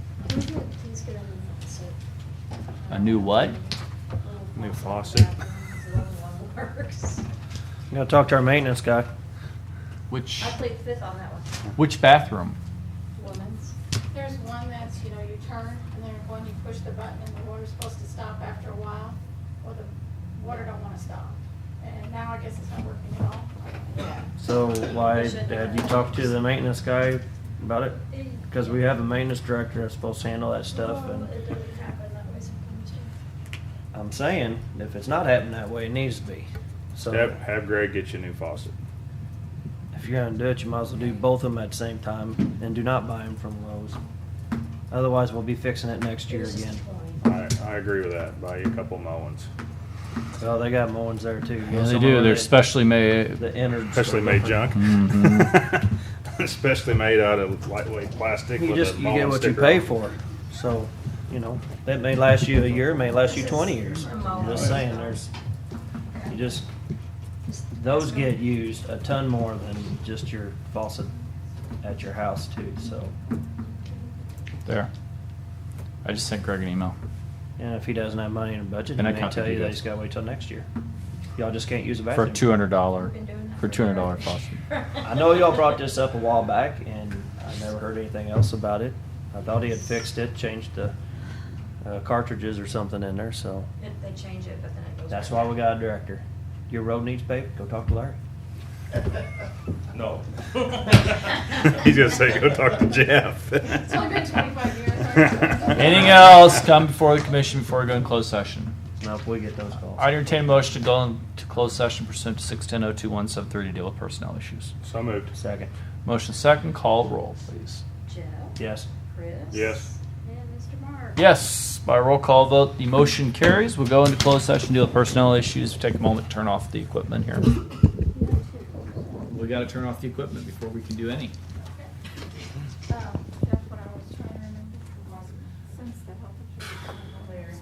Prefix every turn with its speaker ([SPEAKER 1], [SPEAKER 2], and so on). [SPEAKER 1] Let's get a new faucet.
[SPEAKER 2] A new what?
[SPEAKER 3] New faucet.
[SPEAKER 1] That one works.
[SPEAKER 3] You gotta talk to our maintenance guy.
[SPEAKER 2] Which,
[SPEAKER 1] I played fifth on that one,
[SPEAKER 2] which bathroom?
[SPEAKER 1] women's.
[SPEAKER 4] There's one that's, you know, you turn, and then when you push the button, and the water's supposed to stop after a while, well, the water don't wanna stop. And now I guess it's not working at all. Yeah.
[SPEAKER 3] So why have you talked to the maintenance guy about it? Because we have a maintenance director that's supposed to handle that stuff
[SPEAKER 1] Well,
[SPEAKER 3] and
[SPEAKER 1] It doesn't happen that way sometimes too.
[SPEAKER 3] I'm saying, if it's not happening that way, it needs to be. So
[SPEAKER 5] Have, have Greg get you a new faucet.
[SPEAKER 3] if you're gonna do it, you might as well do both of them at the same time and do not buy them from Lowe's. Otherwise, we'll be fixing it next
[SPEAKER 1] It
[SPEAKER 3] year
[SPEAKER 1] was just
[SPEAKER 3] again.
[SPEAKER 1] a coin.
[SPEAKER 5] I, I agree with that. Buy you a couple mowings,
[SPEAKER 3] Well, they got mowings there too. You know,
[SPEAKER 2] Yeah, they
[SPEAKER 3] some
[SPEAKER 2] do,
[SPEAKER 3] of
[SPEAKER 2] they're
[SPEAKER 3] the-
[SPEAKER 2] specially made, Mm-hmm.
[SPEAKER 3] The innards.
[SPEAKER 5] especially
[SPEAKER 3] are
[SPEAKER 5] made
[SPEAKER 3] different.
[SPEAKER 5] junk, especially made out of lightweight plastic.
[SPEAKER 3] You
[SPEAKER 5] with
[SPEAKER 3] just,
[SPEAKER 5] a
[SPEAKER 3] you
[SPEAKER 5] mowing
[SPEAKER 3] get what you
[SPEAKER 5] sticker
[SPEAKER 3] pay
[SPEAKER 5] on it.
[SPEAKER 3] for. So, you know, that may last you a year, may last you
[SPEAKER 1] This is
[SPEAKER 3] twenty years.
[SPEAKER 1] a
[SPEAKER 3] I'm
[SPEAKER 1] mower.
[SPEAKER 3] just saying, there's, you just, those get used a ton more than just your faucet at your house too, so.
[SPEAKER 2] there. I just sent Greg an email.
[SPEAKER 3] And if he doesn't have money in a budget, he
[SPEAKER 2] And I
[SPEAKER 3] may
[SPEAKER 2] can't
[SPEAKER 3] tell
[SPEAKER 2] do
[SPEAKER 3] you they
[SPEAKER 2] this.
[SPEAKER 3] just gotta wait till next year. Y'all just can't use a
[SPEAKER 2] For
[SPEAKER 3] bathroom.
[SPEAKER 2] two hundred dollar,
[SPEAKER 1] We've been doing that
[SPEAKER 2] for two hundred dollar
[SPEAKER 1] forever.
[SPEAKER 2] faucet.
[SPEAKER 3] I know y'all brought this up a while back and I never heard anything else about it. I thought he had fixed it, changed the uh, cartridges or something in there, so.
[SPEAKER 1] If they change it, but then it goes.
[SPEAKER 3] That's
[SPEAKER 1] back.
[SPEAKER 3] why we got a director. Your road needs paved, go talk to Larry.
[SPEAKER 5] No. He's gonna say, go talk to Jeff.
[SPEAKER 4] It's only been 25 years, right?
[SPEAKER 2] Anything else come before the commission before we go in closed session?
[SPEAKER 3] Now, if we get those calls.
[SPEAKER 2] I entertain a motion to go into closed session pursuant to six ten oh two one seven three to deal with personnel issues.
[SPEAKER 5] So moved.
[SPEAKER 3] Second,
[SPEAKER 2] Motion second, call roll, please.
[SPEAKER 1] Jeff?
[SPEAKER 3] yes.
[SPEAKER 1] Chris?
[SPEAKER 5] Yes.
[SPEAKER 1] And Mr. Mark?
[SPEAKER 2] Yes, by roll call vote, the motion carries. We'll go into closed session, deal with personnel issues. Take a moment to turn off the equipment here. We gotta turn off the equipment before we can do any.
[SPEAKER 4] Um,